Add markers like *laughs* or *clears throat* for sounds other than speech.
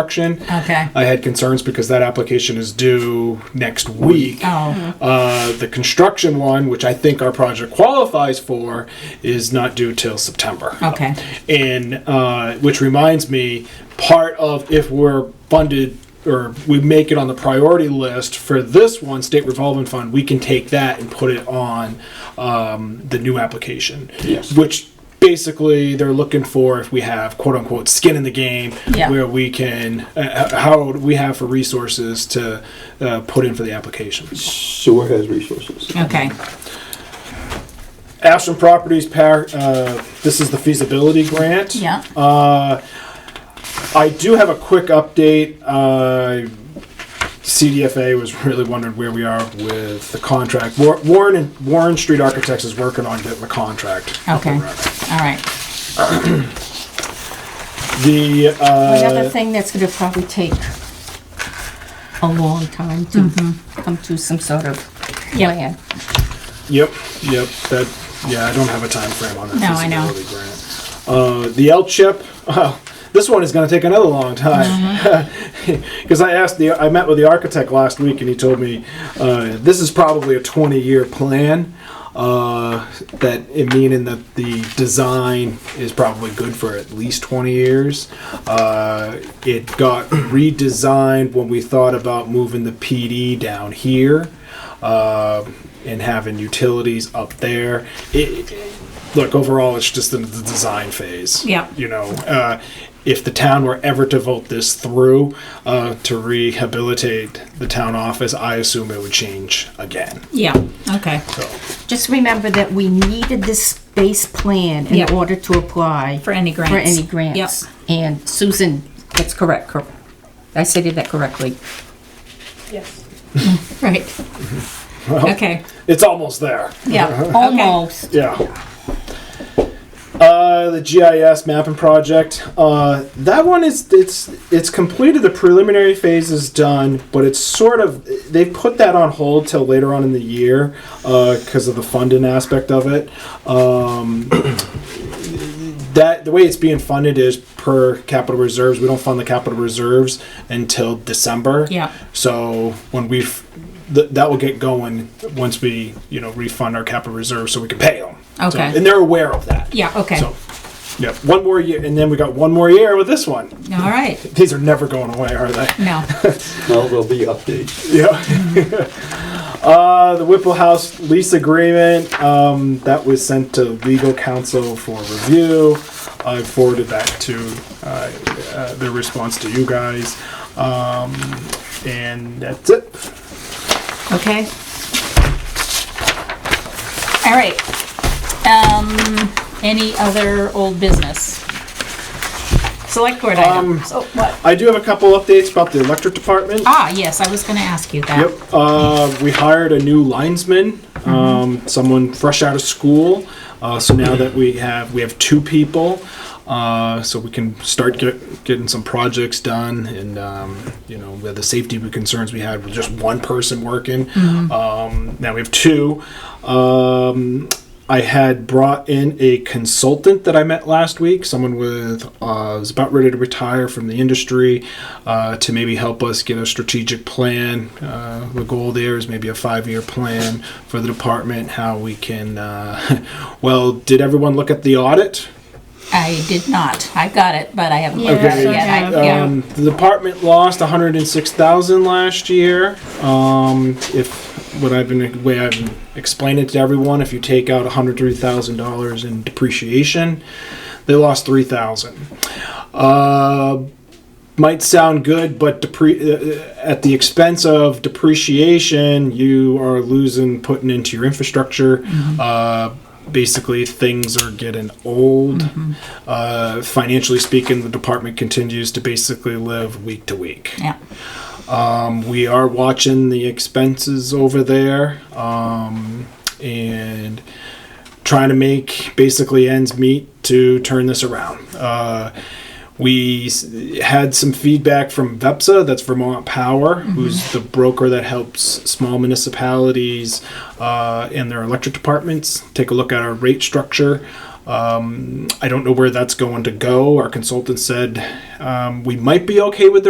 construction. Okay. I had concerns because that application is due next week. Oh, Uh, the construction one, which I think our project qualifies for, is not due till September. okay. And uh, which reminds me, part of if we're funded or we make it on the priority list for this one state revolving fund, we can take that and put it on um, the new application. Yes. Which basically they're looking for if we have quote unquote skin in the game, Yeah. where we can uh, h- how do we have for resources to uh, put in for the application. Sewer has resources. Okay. Ashland Properties, par- uh, this is the feasibility grant. Yeah. Uh, I do have a quick update. Uh, CDFA was really wondering where we are with the contract. War- Warren and Warren Street Architects is working on getting the contract. up and Okay. running. All right. The Another uh, thing that's gonna probably take a long time to Mm-hmm. come to some sort of plan. yep, yep. That yeah, I don't have a time frame on that No, I know. feasibility grant. Uh, the L chip. *laughs* Oh, this one is going to take another long time Mm-hmm. *laughs* because I asked the I met with the architect last week and he told me uh, this is probably a 20 year plan. Uh, that it meaning that the design is probably good for at least 20 years. Uh, it got *clears throat* redesigned when we thought about moving the PD down here uh, and having utilities up there. It, look, overall, it's just in the design phase. Yeah. You know, uh, if the town were ever to vote this through uh, to rehabilitate the town office, I assume it would change again. Yeah. Okay. So, Just remember that we needed this space plan in Yep. order to apply. For any grants. For any grants. Yep. And Susan, that's correct, cor- I stated that correctly. *laughs* Right. Okay. it's almost there. *laughs* Yeah. Almost. Yeah. Uh, the GIS mapping project. Uh, that one is it's it's completed. The preliminary phase is done, but it's sort of they put that on hold till later on in the year because of the funding aspect of it. Um, *clears throat* that the way it's being funded is per capital reserves. We don't fund the capital reserves until December. Yeah. So when we f- th- that will get going once we you know refund our capital reserves so we can pay them. Okay. and they're aware of that. Yeah. Okay. So, yeah, one more year, and then we got one more year with this one. All right. These are never going away, are they? No. Now there'll be updates. Yeah. *laughs* uh, the Whipple House lease agreement um, that was sent to legal counsel for review. I forwarded that to uh, uh, their response to you guys, um, and that's it. Okay. All right. Um, any other old business? Select board Um, items. Oh, what? I do have a couple updates about the electric department. Ah, yes, I was gonna ask you that. Yep. Uh, we hired a new linesman, um, someone fresh out of school. Uh, so now that we have we have two people, uh, so we can start get, getting some projects done, and um, you know we had the safety concerns we had with just one person working. Um, now we have two. Um, I had brought in a consultant that I met last week, someone with uh, was about ready to retire from the industry, uh, to maybe help us get a strategic plan. Uh, the goal there is maybe a five-year plan for the department. How we can, uh, *laughs* well, did everyone look at the audit? I did not. I got it, but I haven't looked at Okay. it yet. I- yeah. Um, the department lost 106,000 last year. Um, if what I've been way I've been explaining it to everyone, if you take out 103,000 dollars in depreciation, they lost 3,000. Uh, might sound good, but depre- uh, at the expense of depreciation, you are losing putting into your infrastructure. Uh, basically, things are getting old. Uh, financially speaking, the department continues to basically live week to week. Yeah. Um, we are watching the expenses over there um, and trying to make basically ends meet to turn this around. Uh, we s- had some feedback from VEPSA, that's Vermont Power, who's the broker that helps small municipalities uh, and their electric departments take a look at our rate structure. Um, I don't know where that's going to go. Our consultant said um, we might be okay with the